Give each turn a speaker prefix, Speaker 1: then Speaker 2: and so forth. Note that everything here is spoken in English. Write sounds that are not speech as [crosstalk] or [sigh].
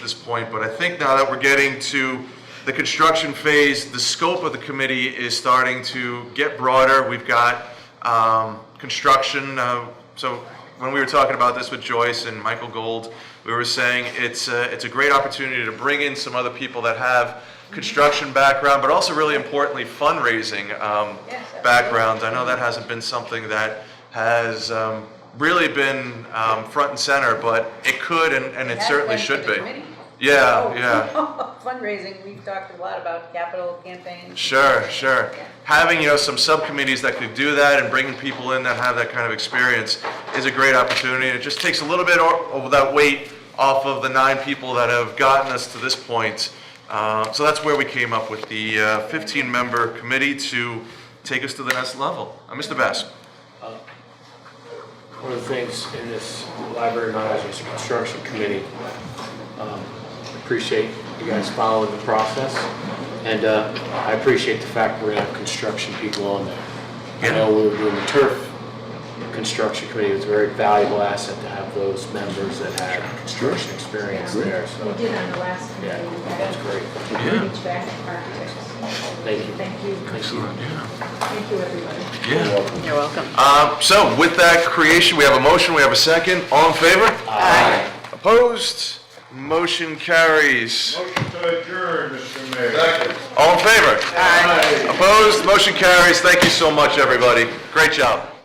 Speaker 1: this point, but I think now that we're getting to the construction phase, the scope of the committee is starting to get broader. We've got um, construction, uh, so when we were talking about this with Joyce and Michael Gold, we were saying it's, a- it's a great opportunity to bring in some other people that have construction background, but also really importantly fundraising um, backgrounds. I know that hasn't been something that has um, really been um, front and center, but it could and, and it
Speaker 2: That's
Speaker 1: certainly
Speaker 2: been
Speaker 1: should
Speaker 2: for the
Speaker 1: be.
Speaker 2: committee.
Speaker 1: Yeah,
Speaker 2: Oh. [laughs]
Speaker 1: yeah.
Speaker 2: Fundraising, we've talked a lot about capital campaigns.
Speaker 1: Sure, sure.
Speaker 2: Yeah.
Speaker 1: Having, you know, some subcommittees that could do that and bringing people in that have that kind of experience is a great opportunity. It just takes a little bit o- of that weight off of the nine people that have gotten us to this point. Uh, So that's where we came up with the 15-member committee to take us to the next level. Uh, Mr. Bass?
Speaker 3: One of the things in this library managers construction committee, um, appreciate you guys following the process. And uh, I appreciate the fact we're gonna have construction people on there. I know we were doing the turf construction committee, it was a very valuable asset to have those members that had construction experience there,
Speaker 4: We
Speaker 3: so,
Speaker 4: did on the last
Speaker 3: yeah,
Speaker 4: meeting.
Speaker 3: that's great.
Speaker 4: Reach back to architects.
Speaker 3: Thank you.
Speaker 4: Thank you.
Speaker 1: Excellent, yeah.
Speaker 4: Thank you, everybody.
Speaker 1: Yeah.
Speaker 2: You're welcome.
Speaker 1: Um, So with that creation, we have a motion, we have a second. All in favor? Aye. Opposed? Motion carries.
Speaker 5: Motion to adjourn, Mr. Mayor.
Speaker 1: All in favor? Aye. Opposed? Motion carries. Thank you so much, everybody. Great job.